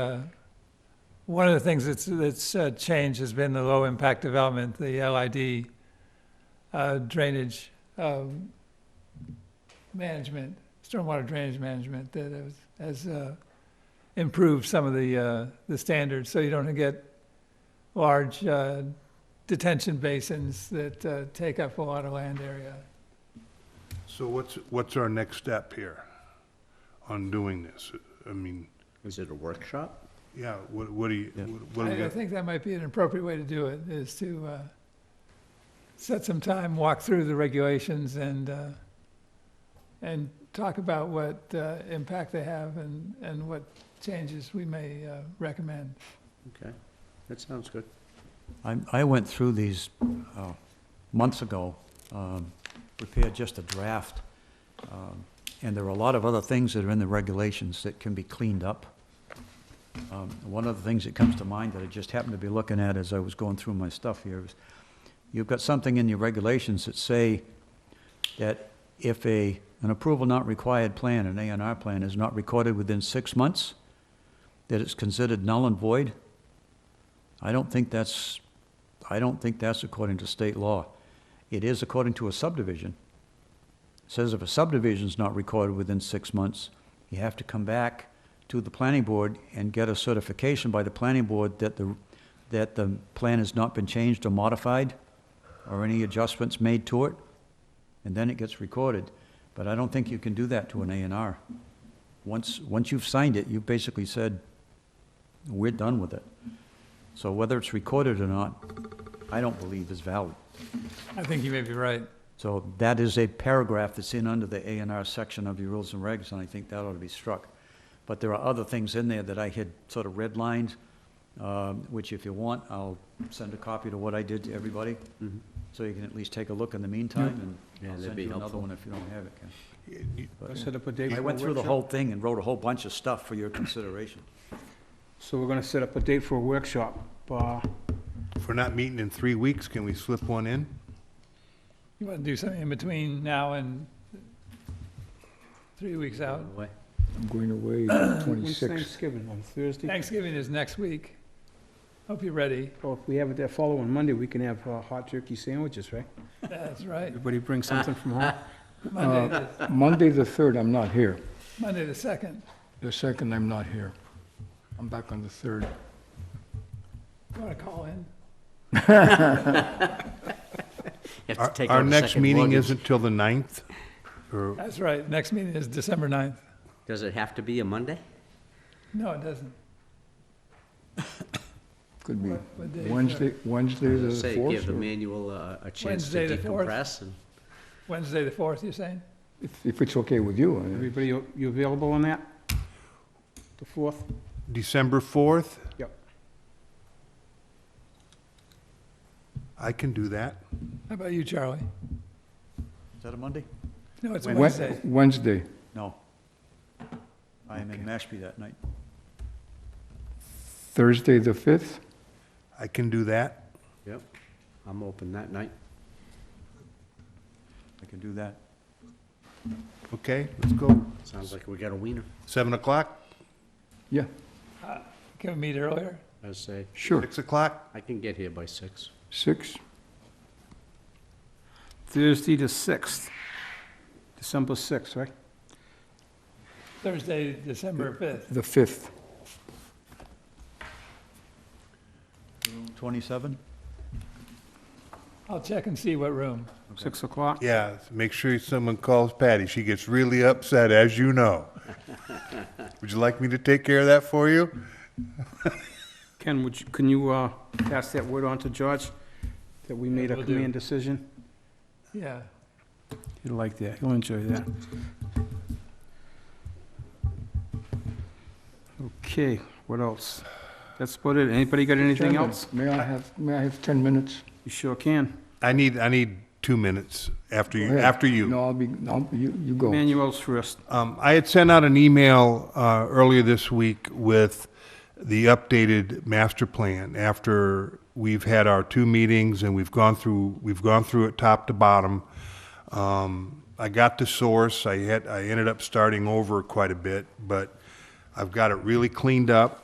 Uh, One of the things that's, that's uh, changed has been the low-impact development, the LID uh, drainage um, management, stormwater drainage management that has, has uh, improved some of the, uh, the standards, so you don't get large uh, detention basins that uh, take up a lot of land area. So what's, what's our next step here on doing this? I mean, Is it a workshop? yeah, what, what do you, Yeah. what- what do we I I got? think that might be an appropriate way to do it, is to uh, set some time, walk through the regulations and, uh, and talk about what uh, impact they have and, and what changes we may uh, recommend. Okay, that sounds good. I, I went through these uh, months ago, um, prepared just a draft, um, and there are a lot of other things that are in the regulations that can be cleaned up. Um, One of the things that comes to mind that I just happened to be looking at as I was going through my stuff here is, you've got something in your regulations that say that if a, an approval not required plan, an A and R plan, is not recorded within six months, that it's considered null and void. I don't think that's, I don't think that's according to state law. It is according to a subdivision. It Says if a subdivision's not recorded within six months, you have to come back to the planning board and get a certification by the planning board that the, that the plan has not been changed or modified, or any adjustments made to it, and then it gets recorded. But I don't think you can do that to an A and R. Once, once you've signed it, you've basically said, we're done with it. So whether it's recorded or not, I don't believe is valid. I think you may be right. So that is a paragraph that's in under the A and R section of your rules and regs, and I think that ought to be struck. But there are other things in there that I had sort of redlined, um, which if you want, I'll send a copy to what I did to everybody, so you can at least take a look in the meantime, and Mm-hmm. Yeah, I'll that'd send be you another helpful. one if you don't have it, Ken. Let's set up a day for I a went through the workshop. whole thing and wrote a whole bunch of stuff for your consideration. So we're gonna set up a date for a workshop. Uh, If we're not meeting in three weeks, can we slip one in? You want to do something in between now and three weeks out? Away. I'm going away When's 26th. Thanksgiving, on Thursday? Thanksgiving is next week. Hope you're ready. Or if we have it that following Monday, we can have uh, hot turkey sandwiches, right? That's right. Everybody bring something from home. Monday, the- Uh, Monday, the 3rd, I'm not here. Monday the 2nd. The 2nd, I'm not here. I'm back on the 3rd. Want to call in? You have Our to take our out a next second meeting luggage. isn't till the ninth? Or, That's right. Next meeting is December 9th. Does it have to be a Monday? No, it doesn't. Could be What- what day is that? Wednesday, Wednesday, the Say, give the 4th, or manual a, a chance to Wednesday the fourth. decompress and Wednesday, the 4th, you're saying? if- if it's okay with Oh, you. I- Everybody, you you available on that? The fourth? December fourth? Yep. I can do that. How about you, Charlie? Is that a Monday? No, it's Wed- Wednesday. Wednesday. No. I am in Mashpee that night. Thursday, the 5th? I can do that. Yep, I'm open that night. I can do that. Okay, let's go. Sounds like we got a wiener. Seven o'clock, Yeah, Can we meet earlier? I say, sure. six o'clock? I can get here by six. 6? Thursday the sixth. December sixth, right? Thursday, December 5th. The 5th. 27? I'll check and see what room. Six o'clock? Yeah, make sure someone calls Patty. She gets really upset, as you know. Would you like me to take care of that for you? Ken, would you, can you, uh, pass that word on to George? That we made a will do. command decision? Yeah. He'll like that. He'll enjoy that. Okay, what else? That's about it. Anybody got anything Chairman, else? May I have, may I have 10 minutes? You sure can. I need, I need two minutes after Go you, ahead. after you. No, I'll be, no, you, you go. Manuel's first. Um, I had sent out an email uh, earlier this week with the updated master plan after we've had our two meetings and we've gone through we've gone through it top to bottom. Um, I got the source. I had I ended up starting over quite a bit, but I've got it really cleaned up.